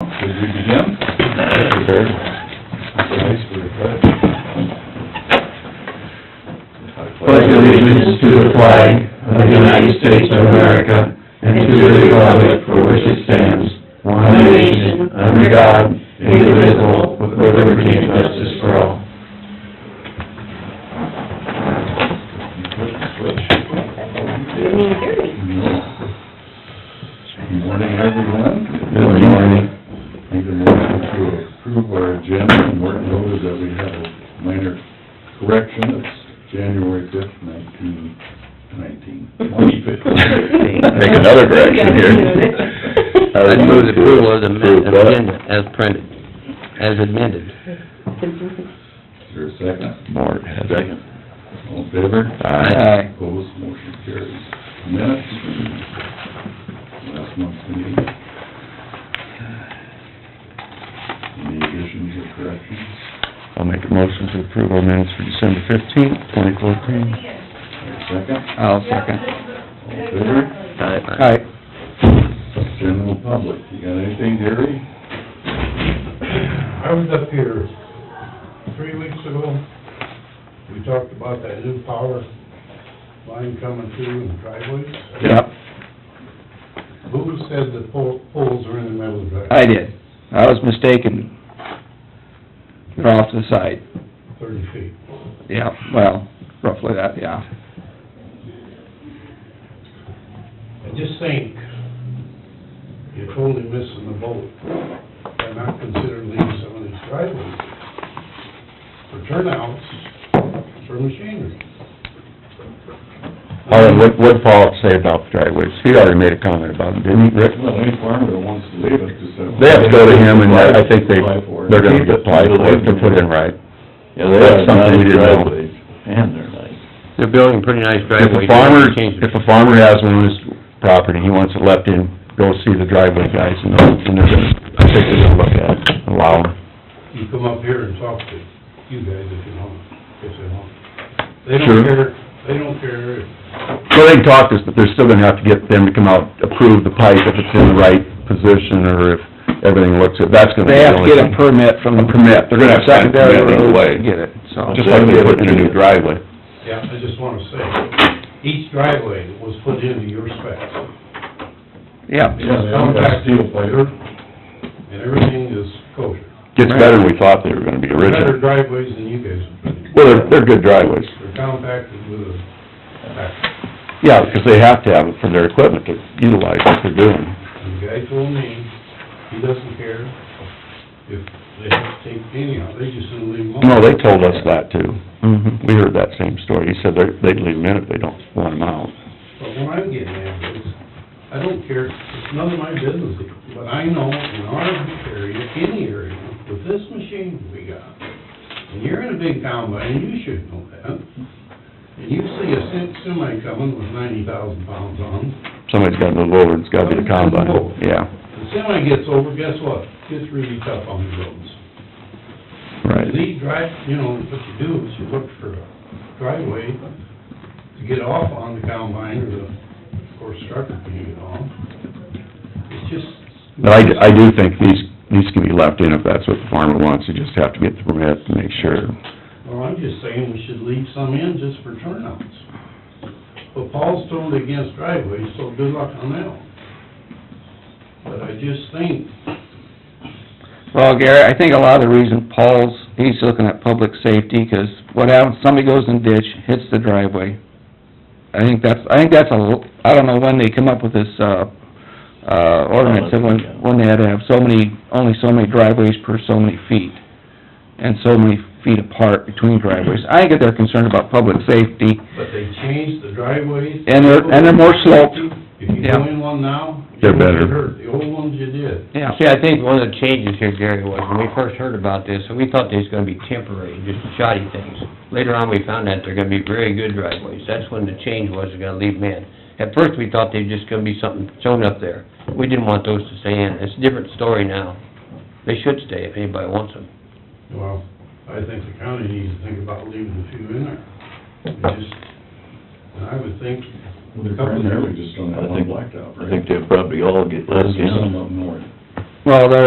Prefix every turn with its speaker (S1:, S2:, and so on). S1: should we begin?
S2: Prepared.
S1: Nice, we're prepared.
S2: Pledge allegiance to the flag of the United States of America and to the republic for which it stands, one nation, under God, indivisible, with liberty and justice for all.
S1: You flip the switch.
S3: Evening thirty.
S1: Good morning, everyone.
S2: Good morning.
S1: Need a motion to approve our agenda and work noted that we have a minor correction. It's January fifth, nineteen nineteen.
S2: Make another correction here.
S4: I would move the approval of the amend- amendment as printed, as amended.
S1: Is there a second?
S2: Mark has
S1: Second. All in favor?
S2: Aye.
S1: Opposed, motion carries. Minutes? Last month's meeting. Any additions or corrections?
S2: I'll make a motion to approve our minutes for December fifteenth, twenty
S1: Is
S2: fourteen.
S1: there a second?
S2: I'll second.
S1: All in favor?
S4: Aye.
S1: General public, you got anything, Gary?
S5: I was up here three weeks ago. We talked about that new power line coming through in the driveways.
S6: Yep,
S5: Who said the pole- poles are in the middle of the driveway?
S6: I did. I was mistaken. They're off to the side.
S5: Thirty feet.
S6: Yeah, well, roughly that, yeah.
S5: I just think you're totally missing the boat by not considering leaving some of these driveways for turnouts for machinery.
S2: Alan, what, what Paul say about the driveways? He already made a comment about them, didn't he, Rick?
S1: Well, any farmer that wants to leave it, just have...
S2: They have to go to him, and I think they,
S1: Apply for it.
S2: they're gonna apply for it to put in right.
S7: Yeah, they have
S2: That's
S7: nice
S2: something we didn't know.
S7: driveways, and they're nice.
S4: They're building pretty nice
S2: If
S4: driveway.
S2: a farmer, if a farmer has one on his property, he wants it left in, go see the driveway guys, and they'll, and they're gonna, I think they're gonna look at it, allow them.
S5: you come up here and talk to you guys if you want, if they want. They
S2: Sure.
S5: don't care, they don't care,
S2: So they can talk this, but they're still gonna have to get them to come out, approve the pipe if it's in the right position, or if everything looks, good. that's gonna be
S6: They
S2: the
S6: have to
S2: only
S6: get a
S2: thing.
S6: permit from the...
S2: Permit, they're gonna have to sign a
S6: Secondary
S2: permit right
S6: road
S2: away.
S6: to Get it, so...
S2: Just like they put in a new driveway.
S5: yeah, I just wanna say, each driveway was put into your specs,
S6: Yeah,
S1: Yeah, they all got steel plater.
S5: and everything is kosher.
S2: Gets better than we thought they were gonna be
S5: Better
S2: originally.
S5: driveways than you guys have been.
S2: Well, they're, they're good driveways.
S5: They're compacted with a, pack.
S2: Yeah, because they have to have it for their equipment to utilize what they're doing.
S5: and the guy told me, he doesn't care if they have to take any out, they just gonna leave them
S2: No,
S5: alone.
S2: they told us that too.
S6: mhm.
S2: We heard that same story. He said they're, they'd leave them in if they don't want them out.
S5: But what I'm getting at is, I don't care, it's none of my business, but I know in our area, any area, with this machine we got, and you're in a big town, but you should know that, and you see a sem- semi coming with ninety thousand pounds on,
S2: Somebody's gotta move over, it's gotta be the combine, yeah,
S5: the semi gets over, guess what? Gets really tough on the roads.
S2: right.
S5: These drive, you know, what you do is you look for a driveway to get off on the combine or the, or structure to get off. It's just.
S2: But I, I do think these, these can be left in if that's what the farmer wants. You just have to get the permit and make sure.
S5: Well, I'm just saying we should leave some in just for turnouts. But Paul's totally against driveways, so good luck on that one. But I just think,
S6: Well, Gary, I think a lot of the reason Paul's, he's looking at public safety, 'cause what happens, somebody goes in ditch, hits the driveway. I think that's, I think that's a, l- I don't know when they come up with this, uh, uh, ordinance, that when, when they had to have so many, only so many driveways per so many feet, and so many feet apart between driveways. I think that they're concerned about public safety,
S5: but they changed the driveways.
S6: and they're, and they're more sloped,
S5: If you
S6: Yeah.
S5: go in one now. you
S2: They're
S5: won't get
S2: better.
S5: hurt. The old ones you did.
S6: yeah.
S4: See, I think one of the changes here, Gary, was when we first heard about this, we thought these were gonna be temporary, just shoddy things. Later on, we found out they're gonna be very good driveways. That's when the change was, they're gonna leave them in. At first, we thought they were just gonna be something shown up there. We didn't want those to stay in. It's a different story now. They should stay if anybody wants them.
S5: Well, I think the county needs to think about leaving a few in there. It Just, and I would think,
S1: They're primarily just on that
S7: I
S1: one
S7: think,
S1: blacktop, right?
S7: I think they'll probably all get left
S1: There's
S7: in.
S1: some up north.
S6: Well, they're,